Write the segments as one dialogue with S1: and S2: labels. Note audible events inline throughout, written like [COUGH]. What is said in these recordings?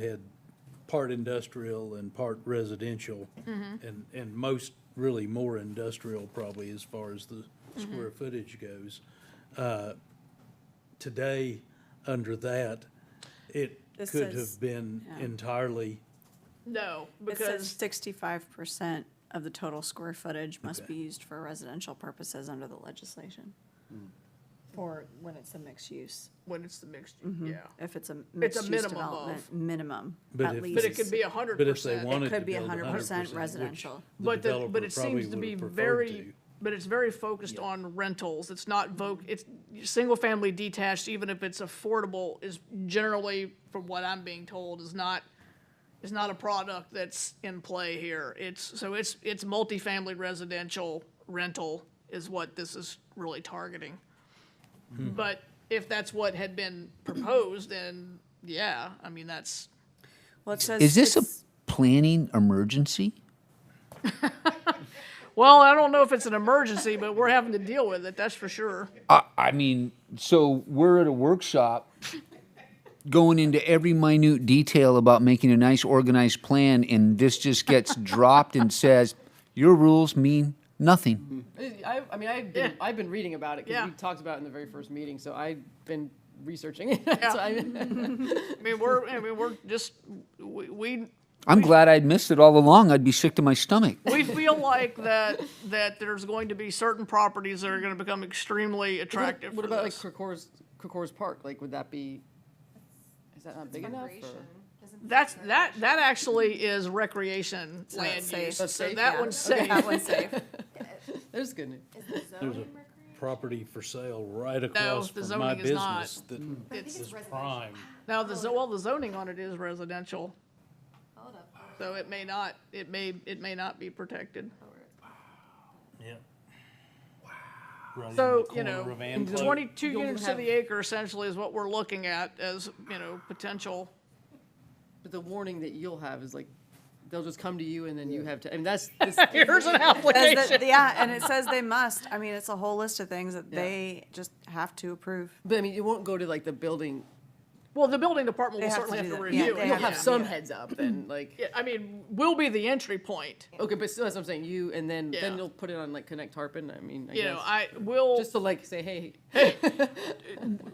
S1: had part industrial and part residential. And, and most, really more industrial probably as far as the square footage goes. Uh, Today, under that, it
S2: This
S1: could
S2: says-
S1: have been entirely,
S3: No,
S2: It says
S3: because,
S2: sixty-five percent of the total square footage must be used for residential purposes under the legislation.
S1: Hmm.
S2: For when it's a mixed use,
S3: when it's the mixed,
S2: Mm-hmm.
S3: yeah.
S2: if it's a mixed use
S3: minimum
S2: development,
S3: of.
S2: minimum,
S1: But
S2: at
S1: if
S2: least.
S3: But it could be a hundred
S1: but if they
S3: percent.
S1: wanted to
S2: could be
S1: build
S2: 100%
S1: 100%, which
S2: residential.
S1: the
S3: But, the-
S1: developer
S3: but it
S1: probably
S3: seems to
S1: would
S3: be
S1: have preferred
S3: very,
S1: to.
S3: but it's very focused on rentals. It's not voc, it's, single-family detached, even if it's affordable, is generally, from what I'm being told, is not, is not a product that's in play here. It's, so it's, it's multifamily residential rental is what this is really targeting.
S1: Hmm.
S3: But if that's what had been proposed, then, yeah, I mean, that's,
S2: Well, it says
S4: Is this a
S2: it's-
S4: planning emergency?
S3: Well, I don't know if it's an emergency, but we're having to deal with it, that's for sure.
S4: I, I mean, so we're at a workshop going into every minute detail about making a nice organized plan, and this just [LAUGHS] gets dropped and says, your rules mean nothing.
S5: I, I mean, I've been,
S3: Yeah.
S5: I've been reading about it because
S3: Yeah.
S5: we talked about it in the very first meeting, so I've been researching it. [LAUGHS] so
S3: Mm-hmm.
S5: I,
S3: I mean, we're, I mean, we're just, we, we,
S4: I'm glad I'd missed it all along. I'd be sick to my stomach.
S3: we feel like that, that there's going to be certain properties that are gonna become extremely attractive
S5: what
S3: for
S5: about like
S3: this.
S5: Krakor's, Krakor's Park? Like, would that be, is that not big enough? or-
S3: That's, that, that actually is recreation
S2: that's
S3: land use,
S2: safe. That's
S3: so
S5: safe,
S3: that
S5: yeah.
S3: one's safe.
S2: That [LAUGHS] one's [LAUGHS] safe.
S5: There's good news.
S1: There's a property for sale right across
S3: the
S1: from my
S3: zoning is not.
S1: business that is prime.
S3: Now, the, zo- well, the zoning on it is residential,
S6: Hold up. hold
S3: so it may not, it may, it may not be protected.
S1: Yeah. Right in
S3: So,
S1: the
S3: you
S1: corner
S3: know,
S1: of Antelope.
S3: twenty-two
S5: You'll
S3: units to
S5: have-
S3: the acre essentially is what we're looking at as, you know, potential.
S5: But the warning that you'll have is like, they'll just come to you and then you have to, I
S3: [LAUGHS]
S5: mean, that's, this,
S3: Here's an
S2: Says
S3: application.
S2: that- Yeah, and it says they must, I mean, it's a whole list of things that they just have to approve.
S5: but I mean, it won't go to like the building.
S3: Well, the building department
S2: They
S3: will
S2: have to
S3: certainly
S2: do
S3: have to
S2: that. Yeah,
S3: review
S2: they
S3: it.
S5: You'll
S2: have
S5: have
S3: yeah.
S2: to-
S5: some heads up then, like,
S3: Yeah, I mean, will be the entry point.
S5: okay, but still, that's what I'm saying. You, and then,
S3: Yeah.
S5: then you'll put it on like Connect Tarpon. I mean, I
S3: You know,
S5: guess.
S3: I will,
S5: Just to like say, hey,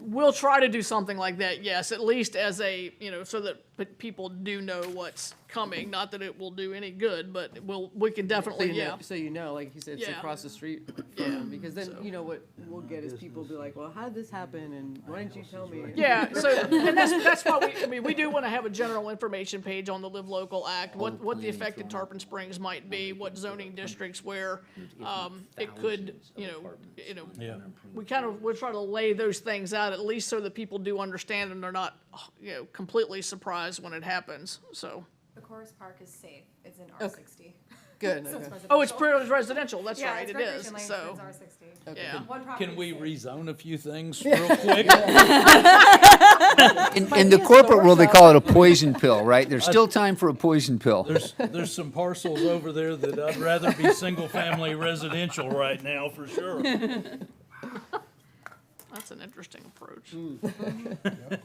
S3: will try to do something like that, yes, at least as a, you know, so that p- people do know what's coming. Not that it will do any good, but we'll, we can
S5: So
S3: definitely,
S5: you,
S3: yeah.
S5: know, so you know, like you said, it's
S3: Yeah.
S5: across the street from them, because then you know what we'll get is people be like, well, how did this happen, and why didn't you tell me?
S3: Yeah, so, and that's, that's why we, I mean, we do want to have a general information page on the Live Local Act, what, what the effect in Tarpon Springs might be, what zoning districts where, um, it could, you know, you know, we kind of, we're trying to lay those things out, at least so that people do understand and they're not, you know, completely surprised when it happens, so.
S6: up. The Chorus Park is safe. It's in R sixty.
S5: Good. Okay.
S3: Oh, it's pretty much residential, that's
S6: Yeah,
S3: right,
S6: it's
S3: it
S6: recreation
S3: is,
S6: land, but
S3: so,
S6: It's R sixty.
S3: yeah.
S6: One property.
S1: Can
S6: is
S1: we
S6: safe.
S1: rezone a few things real quick?
S4: In, in the corporate world, they call it a poison pill, right? There's still time for a poison pill.
S1: There's, there's some parcels over there that I'd rather be single-family residential right now, for sure.
S3: That's an interesting approach. [LAUGHS]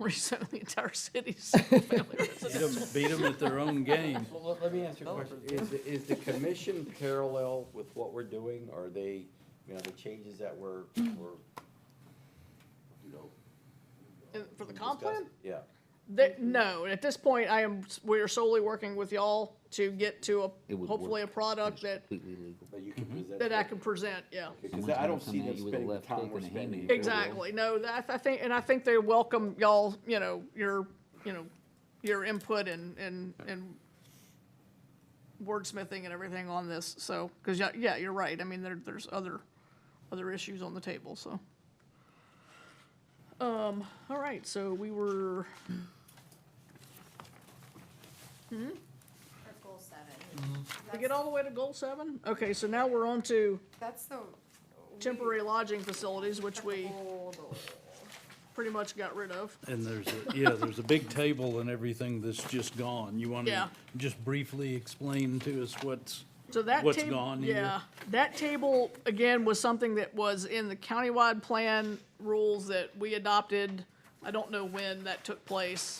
S3: Rezone the entire city to single-family residential.
S1: Beat 'em- Beat them at their own game.
S7: Well, let- let me ask you a question. Is, the- is the commission parallel with what we're doing? Are they, you know, the changes that we're, we're, you know?
S3: And For the comp plan?
S7: discussing? Yeah.
S3: There- no, at this point, I am, we are solely working with y'all to get to
S4: It
S3: a,
S4: would
S3: hopefully a
S4: work.
S3: product that,
S4: Completely legal.
S7: That you can present.
S3: that I can present, yeah.
S7: Because I don't see
S4: Someone's gonna come at Mm-hmm.
S7: them
S4: you with a left hook and a
S7: spending the time we're
S4: hand
S7: spending.
S4: in your
S3: Exactly, no, that, I think, and I think they welcome y'all, you know, your, you know, your input and, and, and wordsmithing and everything on this, so, because, yeah, yeah, you're right, I mean, there, there's other, other issues on the table, so. Um, all right, so we were,
S6: Or goal seven.
S1: Mm-hmm.
S3: did we get all the way to goal seven? Okay, so now we're on to
S6: That's the.
S3: temporary lodging facilities, which we
S6: Hold on.
S3: pretty much got rid of.
S1: And there's, a- yeah, there's a big table and everything that's just gone. You want
S3: Yeah.
S1: to just briefly explain to us what's,
S3: So that
S1: What's
S3: table,
S1: gone here?
S3: yeah, that table again was something that was in the countywide plan rules that we adopted I don't know when that took place,